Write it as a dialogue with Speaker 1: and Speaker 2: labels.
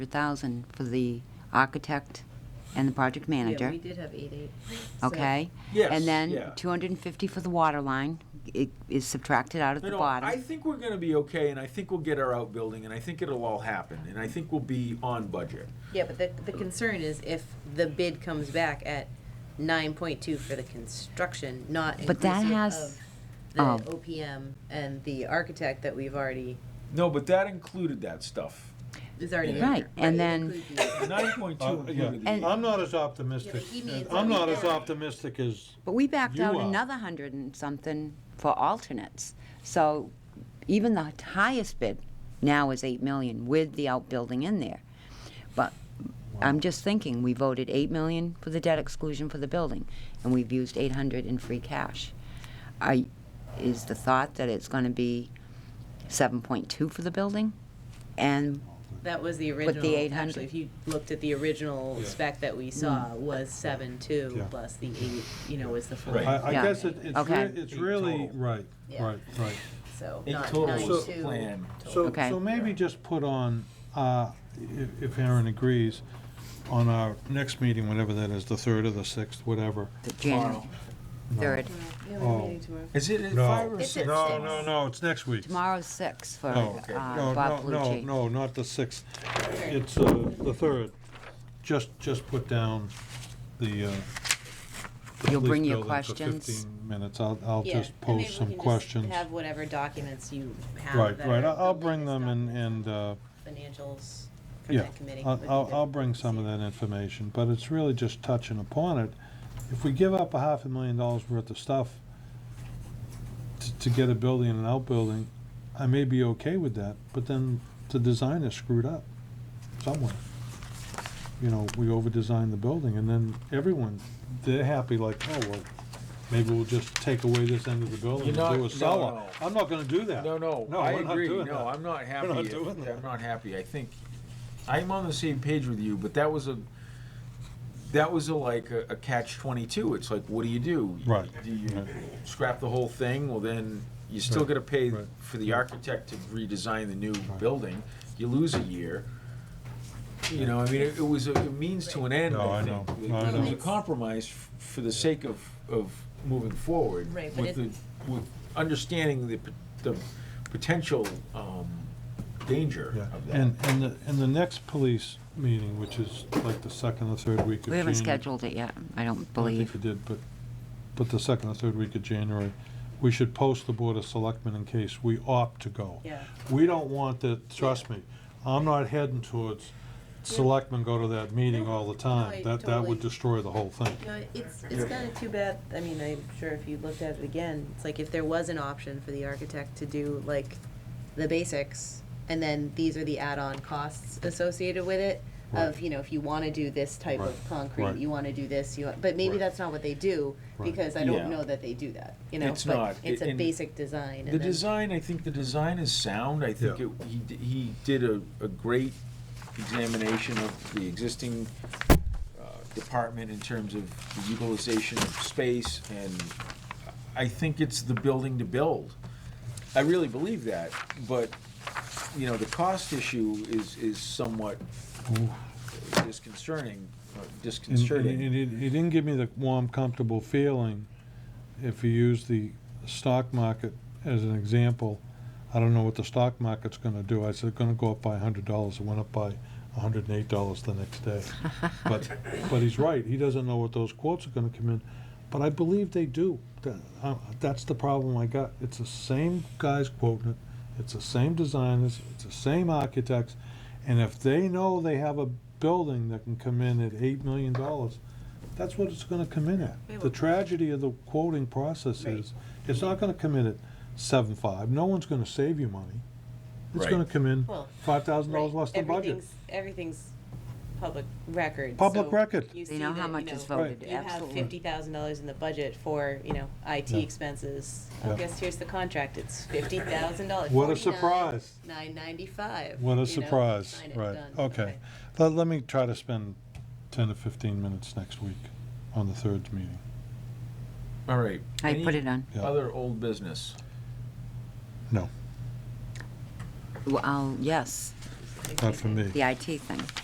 Speaker 1: 100,000 for the architect and the project
Speaker 2: Yeah,
Speaker 1: manager,
Speaker 2: we did have eight, eight. So-
Speaker 1: okay?
Speaker 3: Yes,
Speaker 1: And
Speaker 3: yeah.
Speaker 1: then 250 for the water line i- is subtracted out at
Speaker 3: No,
Speaker 1: the
Speaker 3: no, I
Speaker 1: bottom.
Speaker 3: think we're gonna be okay, and I think we'll get our outbuilding, and I think it'll all happen, and I think we'll be on budget.
Speaker 2: Yeah, but the, the concern is if the bid comes back at nine point two for the construction, not
Speaker 1: But that
Speaker 2: inclusive
Speaker 1: has-
Speaker 2: of the
Speaker 1: oh.
Speaker 2: OPM and the architect that we've already,
Speaker 3: No, but that included that stuff.
Speaker 2: is already in
Speaker 1: Right,
Speaker 2: there.
Speaker 1: and
Speaker 2: it
Speaker 1: then-
Speaker 2: includes the-
Speaker 3: Nine point two
Speaker 4: Uh, yeah.
Speaker 3: included
Speaker 1: And-
Speaker 3: the,
Speaker 4: I'm not as optimistic,
Speaker 2: Yeah, but he means
Speaker 4: I'm
Speaker 2: that
Speaker 4: not
Speaker 2: we
Speaker 4: as
Speaker 2: don't.
Speaker 4: optimistic as,
Speaker 1: But we backed
Speaker 4: You
Speaker 1: out
Speaker 4: are.
Speaker 1: another 100 and something for alternates. So even the highest bid now is 8 million with the outbuilding in there. But I'm just thinking, we voted 8 million for the debt exclusion for the building, and we've used 800 in free cash. I, is the thought that it's gonna be 7.2 for the building? And,
Speaker 2: That was the original.
Speaker 1: 800.
Speaker 2: Actually, if you looked at the original spec that we
Speaker 1: Mm.
Speaker 2: saw, was seven two
Speaker 4: Yeah.
Speaker 2: plus the eight, you know, was the full.
Speaker 3: Right.
Speaker 4: I, I
Speaker 1: Yeah.
Speaker 4: guess it- it's,
Speaker 1: Okay.
Speaker 4: re- it's really,
Speaker 3: Total.
Speaker 4: right,
Speaker 2: Yeah.
Speaker 4: right, right.
Speaker 2: So
Speaker 3: in
Speaker 2: not nine
Speaker 3: total
Speaker 2: two.
Speaker 3: plan.
Speaker 4: So,
Speaker 1: Okay.
Speaker 4: so maybe just put on, uh, if if Aaron agrees, on our next meeting, whenever that is, the third or the sixth, whatever.
Speaker 1: the January 3rd,
Speaker 4: Oh,
Speaker 3: Is it at
Speaker 4: No.
Speaker 3: five or
Speaker 2: It's
Speaker 3: six?
Speaker 2: at
Speaker 4: No,
Speaker 2: six.
Speaker 4: no, no, it's next week.
Speaker 1: tomorrow's 6 for
Speaker 4: No,
Speaker 1: uh,
Speaker 4: Oh, no,
Speaker 1: Bob
Speaker 4: no, no,
Speaker 1: Palucci.
Speaker 4: no, not the sixth. It's uh, the third. Just, just put down the. uh, the
Speaker 1: You'll
Speaker 4: police
Speaker 1: bring your
Speaker 4: building for
Speaker 1: questions?
Speaker 4: 15 Minutes. I'll, I'll
Speaker 2: Yeah,
Speaker 4: just
Speaker 2: and maybe
Speaker 4: pose
Speaker 2: we
Speaker 4: some
Speaker 2: can just
Speaker 4: questions.
Speaker 2: Have whatever documents you have.
Speaker 4: Right,
Speaker 2: that
Speaker 4: right.
Speaker 2: are
Speaker 4: I'll I'll
Speaker 2: the
Speaker 4: bring
Speaker 2: latest
Speaker 4: them and,
Speaker 2: documents.
Speaker 4: and, uh,
Speaker 2: Financials from
Speaker 4: yeah.
Speaker 2: that committee.
Speaker 4: I'll,
Speaker 2: would be
Speaker 4: I'll,
Speaker 2: good.
Speaker 4: I'll bring some of that information, but it's really just touching upon it. If we give up a half a million dollars worth of stuff to, to get a building and an outbuilding, I may be okay with that, but then the design is screwed up somewhere. You know, we over-designed the building, and then everyone, they're happy like, oh, well, maybe we'll just take away this end of the building and
Speaker 3: You're not-
Speaker 4: do
Speaker 3: no,
Speaker 4: a cellar.
Speaker 3: no.
Speaker 4: I'm not gonna do that.
Speaker 3: No, no,
Speaker 4: No,
Speaker 3: I
Speaker 4: we're not
Speaker 3: agree.
Speaker 4: doing
Speaker 3: No,
Speaker 4: that.
Speaker 3: I'm not happy.
Speaker 4: not
Speaker 3: if-
Speaker 4: doing that.
Speaker 3: I'm not happy. I think I'm on the same page with you, but that was a that was a like a, a catch twenty two. It's like, what do you do?
Speaker 4: Right,
Speaker 3: Do you
Speaker 4: right.
Speaker 3: scrap the whole thing? Well, then you still
Speaker 4: Right,
Speaker 3: got to pay
Speaker 4: right.
Speaker 3: for the architect to redesign the new building. You lose a year. You know, I mean, it, it was a it means to an end.
Speaker 4: No, I
Speaker 3: think.
Speaker 4: know.
Speaker 3: It,
Speaker 4: No, I
Speaker 3: it was
Speaker 4: know.
Speaker 3: a compromise f- for the sake of of moving forward
Speaker 2: Right, but
Speaker 3: with the
Speaker 2: it-
Speaker 3: with understanding the, p- the potential um, danger
Speaker 4: Yeah,
Speaker 3: of that.
Speaker 4: and, and the, and the next police meeting, which is like the second or third week of January.
Speaker 1: We haven't scheduled it yet, I don't believe.
Speaker 4: I think you did, but, but the second or third week of January, we should post the Board of Selectmen in case we opt to go.
Speaker 2: Yeah.
Speaker 4: We don't want that, trust me, I'm not heading towards selectmen go to that meeting all the time.
Speaker 2: I
Speaker 4: That, that would
Speaker 2: totally-
Speaker 4: destroy the whole thing.
Speaker 2: No, it's, it's kind of too bad, I mean, I'm sure if you looked at it again, it's like if there was an option for the architect to do like the basics, and then these are the add-on costs associated with it, of,
Speaker 4: Right.
Speaker 2: you know, if you want to do this type of
Speaker 4: Right,
Speaker 2: concrete,
Speaker 4: right.
Speaker 2: you want to do this, you, want- but maybe
Speaker 4: Right.
Speaker 2: that's not what they do,
Speaker 4: Right.
Speaker 2: because I
Speaker 3: Yeah.
Speaker 2: don't know that they do that, you know?
Speaker 3: It's
Speaker 2: but
Speaker 3: not.
Speaker 2: It's
Speaker 3: It-
Speaker 2: a
Speaker 3: and
Speaker 2: basic design,
Speaker 3: The
Speaker 2: and then,
Speaker 3: design, I think the design is sound. I think
Speaker 4: Yeah.
Speaker 3: it, he, d- he did a, a great examination of the existing uh, department in terms of the utilization of space, and I think it's the building to build. I really believe that, but, you know, the cost issue is, is somewhat disconcerting, uh,
Speaker 4: And- and
Speaker 3: disconcerting.
Speaker 4: It, it- it didn't give me the warm, comfortable feeling if you use the stock market as an example. I don't know what the stock market's gonna do. I said, it's gonna go up by hundred dollars. It went up by hundred and eight dollars the next day. But, but he's right. He doesn't know what those quotes are gonna come in. But I believe they do. Tha- uh, That's the problem I got. It's the same guys quoting it. It's the same designers. It's the same architects. And if they know they have a building that can come in at eight million dollars, that's what it's gonna come in at. The tragedy of the quoting process is, it's not gonna come in at seven five, no one's gonna save you money. It's
Speaker 3: Right.
Speaker 4: gonna come in
Speaker 2: Well,
Speaker 4: five thousand
Speaker 2: right,
Speaker 4: dollars less than budget.
Speaker 2: everything's, everything's public record.
Speaker 4: Public
Speaker 2: so
Speaker 4: record.
Speaker 2: you
Speaker 1: They
Speaker 2: see
Speaker 1: know how
Speaker 2: that, you
Speaker 1: much is
Speaker 2: know,
Speaker 1: voted,
Speaker 4: Right.
Speaker 2: you have
Speaker 1: absolutely.
Speaker 2: fifty thousand dollars in the budget for, you know, IT
Speaker 4: Yeah.
Speaker 2: expenses. I
Speaker 4: Yeah.
Speaker 2: guess here's the contract, it's fifty thousand dollars.
Speaker 4: What a surprise.
Speaker 2: Nine ninety-five.
Speaker 4: What a surprise, right, okay. Let, let me try to spend ten to fifteen minutes next week on the third meeting.
Speaker 3: All right.
Speaker 1: I
Speaker 3: Any
Speaker 1: put it on.
Speaker 4: Yeah.
Speaker 3: Other old business.
Speaker 4: No,
Speaker 1: Well, yes,
Speaker 4: not for me.
Speaker 1: the IT thing.